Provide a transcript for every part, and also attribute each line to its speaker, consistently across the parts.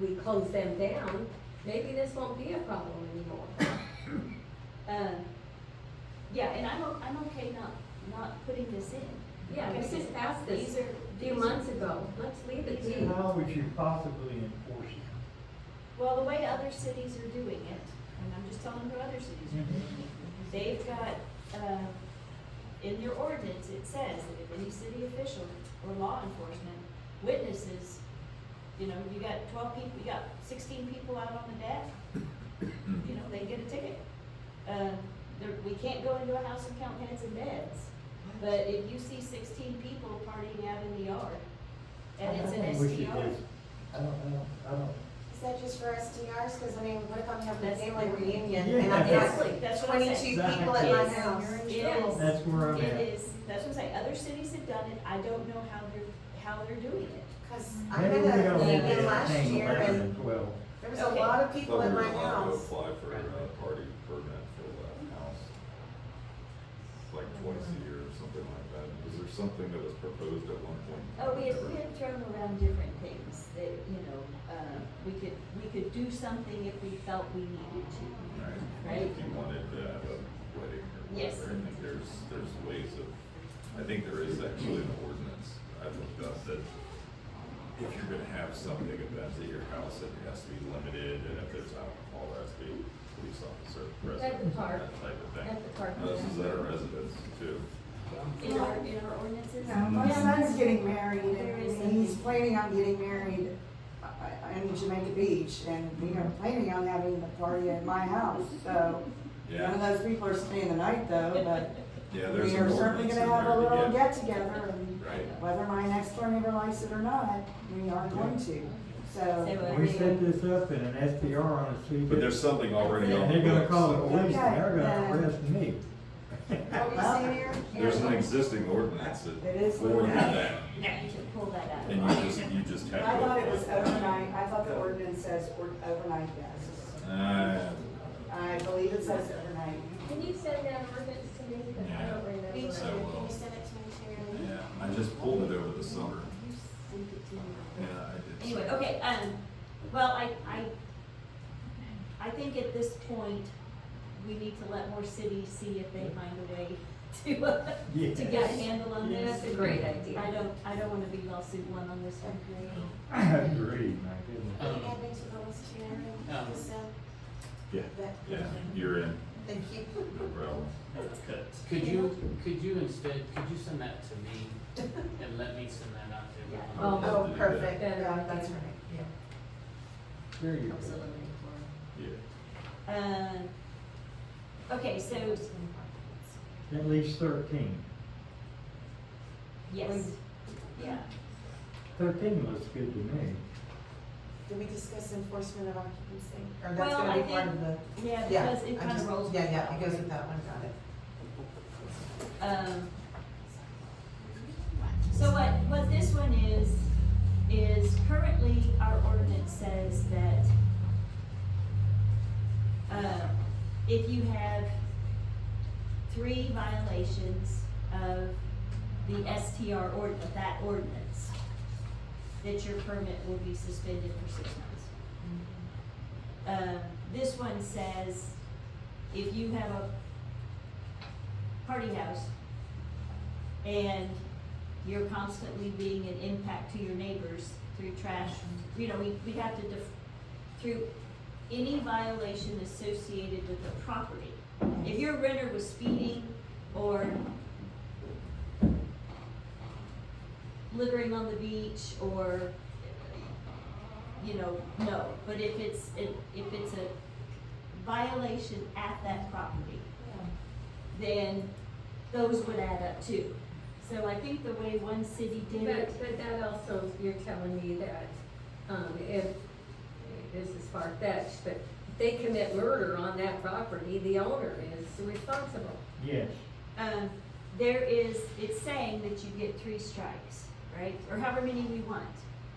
Speaker 1: we close them down, maybe this won't be a problem anymore. Uh,
Speaker 2: Um, Yeah, and I'm, o- I'm okay not, not putting this in.
Speaker 1: yeah, we just passed
Speaker 2: These
Speaker 1: this
Speaker 2: are.
Speaker 1: a
Speaker 2: these
Speaker 1: few
Speaker 2: are-
Speaker 1: months ago, let's leave it
Speaker 2: these
Speaker 1: be.
Speaker 2: are-
Speaker 3: How would you possibly enforce it?
Speaker 2: Well, the way other cities are doing it, and I'm just telling you what other cities
Speaker 3: Mm-hmm.
Speaker 2: are doing it, they've got, uh, in their ordinance, it says that if any city official or law enforcement witnesses, you know, you got twelve people, you got sixteen people out on the deck, you know, they get a ticket. Uh, there, we can't go into a house and count heads and beds, but if you see sixteen people partying out in the yard, and it's
Speaker 3: I
Speaker 2: an
Speaker 3: think we should
Speaker 2: STR,
Speaker 3: just- I don't, I don't, I don't.
Speaker 4: Is that just for STRs? Because I mean, what if I'm having a
Speaker 2: That's-
Speaker 4: family reunion and I've
Speaker 3: Exactly.
Speaker 4: got
Speaker 2: that's what I'm saying.
Speaker 4: twenty-two people at my
Speaker 2: Yes.
Speaker 4: house?
Speaker 2: Yes.
Speaker 3: That's where I'm
Speaker 2: It
Speaker 3: at.
Speaker 2: is, that's what I'm saying, other cities have done it, I don't know how they're, how they're doing it.
Speaker 4: Because I had
Speaker 3: Maybe we
Speaker 4: a
Speaker 3: don't need
Speaker 4: reunion
Speaker 3: to
Speaker 4: last
Speaker 3: hang
Speaker 4: year
Speaker 3: eleven
Speaker 4: and
Speaker 3: and twelve.
Speaker 4: there was a
Speaker 2: Okay.
Speaker 4: lot of
Speaker 5: I
Speaker 4: people
Speaker 5: thought
Speaker 4: at
Speaker 5: we were
Speaker 4: my
Speaker 5: allowed to
Speaker 4: house.
Speaker 5: apply for a uh, party permit for that house. It's Like twice a year or something like that. Was there something that was proposed at one point?
Speaker 2: Oh, we had, we had thrown around different things that, you know, uh, we could, we could do something if we felt we needed to.
Speaker 5: Right, if you wanted to have a wedding or
Speaker 2: Yes.
Speaker 5: whatever, I think there's, there's ways of, I think there is actually an ordinance, I've looked up that if you're gonna have something event at your house, it has to be limited, and if there's alcohol, there has to be a police officer present.
Speaker 1: At the park.
Speaker 5: That type of thing.
Speaker 1: At the park.
Speaker 5: Now, This is at our residence too.
Speaker 2: In our, in our ordinances?
Speaker 6: No, my
Speaker 5: Mm.
Speaker 6: son's getting married,
Speaker 2: There is
Speaker 6: and he's planning on getting married uh, in Jamaica Beach, and we are planning on having the party at my house, so. None of
Speaker 5: Yeah,
Speaker 6: those people are staying the night though, but
Speaker 5: yeah, there's an
Speaker 6: we are
Speaker 5: ordinance
Speaker 6: certainly
Speaker 5: in
Speaker 6: gonna have a
Speaker 5: there to
Speaker 6: little
Speaker 5: get-
Speaker 6: get-together, and
Speaker 5: Right.
Speaker 6: whether my next door neighbor likes it or not, we are going to, so.
Speaker 2: what
Speaker 3: We
Speaker 2: I
Speaker 3: set
Speaker 2: mean-
Speaker 3: this up in an SPR on a street.
Speaker 5: But there's something already on
Speaker 3: And
Speaker 5: the
Speaker 3: they're gonna call the
Speaker 5: books.
Speaker 3: police and they're gonna
Speaker 6: Okay, then.
Speaker 3: arrest me.
Speaker 4: What were you saying, Aaron?
Speaker 5: There's an existing ordinance that.
Speaker 6: It is
Speaker 5: for
Speaker 6: limited.
Speaker 5: that,
Speaker 2: You should pull that out.
Speaker 5: And you just, you just have.
Speaker 6: I
Speaker 5: to
Speaker 6: thought it was
Speaker 5: apply.
Speaker 6: overnight, I thought the ordinance says or- overnight guests.
Speaker 5: Uh,
Speaker 6: I believe it says overnight.
Speaker 1: Can you send that ordinance to me, because I don't
Speaker 5: Yeah.
Speaker 1: remember.
Speaker 4: Me too.
Speaker 1: it.
Speaker 5: I
Speaker 4: Can
Speaker 5: will.
Speaker 4: you send it to me, Sharon?
Speaker 5: yeah, I just pulled it over the summer. Yeah, I did.
Speaker 2: Anyway, okay, um, well, I, I, I think at this point, we need to let more cities see if they find a way to, uh,
Speaker 3: Yes.
Speaker 2: to get a handle on
Speaker 3: Yes.
Speaker 2: this.
Speaker 1: That's a great idea.
Speaker 2: I don't, I don't wanna be lawsuit one on this one.
Speaker 3: I agree, my goodness.
Speaker 4: Can
Speaker 7: Um,
Speaker 4: you add me to the list, Sharon?
Speaker 7: Um,
Speaker 4: Just, uh,
Speaker 5: Yeah,
Speaker 4: that-
Speaker 5: yeah, you're in,
Speaker 4: Thank you.
Speaker 5: no problem.
Speaker 7: Could you, could you instead, could you send that to me and let me send that out to
Speaker 2: Yeah.
Speaker 7: everyone?
Speaker 1: Oh,
Speaker 4: Oh,
Speaker 2: uh,
Speaker 4: perfect,
Speaker 1: Yeah.
Speaker 4: yeah, that's right, yeah.
Speaker 3: There you go.
Speaker 2: Helps eliminate more.
Speaker 5: Yeah,
Speaker 2: Um, okay, so,
Speaker 3: At least thirteen.
Speaker 2: yes, yeah,
Speaker 3: Thirteen looks good to me.
Speaker 4: Did we discuss enforcement of occupancy? Or that's
Speaker 2: Well,
Speaker 4: gonna
Speaker 2: I
Speaker 4: be part
Speaker 2: think-
Speaker 4: of the,
Speaker 2: yeah,
Speaker 4: yeah.
Speaker 2: because it
Speaker 4: I
Speaker 2: kind of
Speaker 4: just-
Speaker 2: rolls.
Speaker 4: Yeah,
Speaker 2: with
Speaker 4: yeah,
Speaker 2: that
Speaker 4: it goes
Speaker 2: one.
Speaker 4: with that one, got it.
Speaker 2: Um, so what, what this one is, is currently our ordinance says that, uh, if you have three violations of the STR ord, of that ordinance, that your permit will be suspended for six months. Uh, this one says, if you have a party house and you're constantly being an impact to your neighbors through trash, you know, we, we have to def, through any violation associated with the property. If your renter was speeding or littering on the beach or, you know, no, but if it's, if if it's a violation at that property, then those would add up too. So I think the way one city did
Speaker 1: But,
Speaker 2: it,
Speaker 1: but that also, you're telling me that, um, if, this is far fetched, but if they commit murder on that property, the owner is responsible.
Speaker 3: Yes.
Speaker 2: um, there is, it's saying that you get three strikes, right? Or however many we want.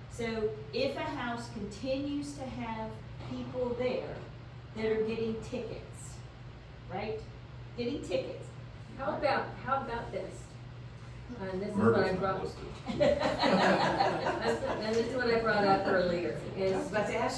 Speaker 2: So if a house continues to have people there that are getting tickets, right? Getting tickets.
Speaker 1: How about, how about this? And this is what I
Speaker 5: murder's not
Speaker 1: brought,
Speaker 5: listed.
Speaker 1: and this is what I brought up earlier,
Speaker 4: I
Speaker 1: is
Speaker 4: was about to ask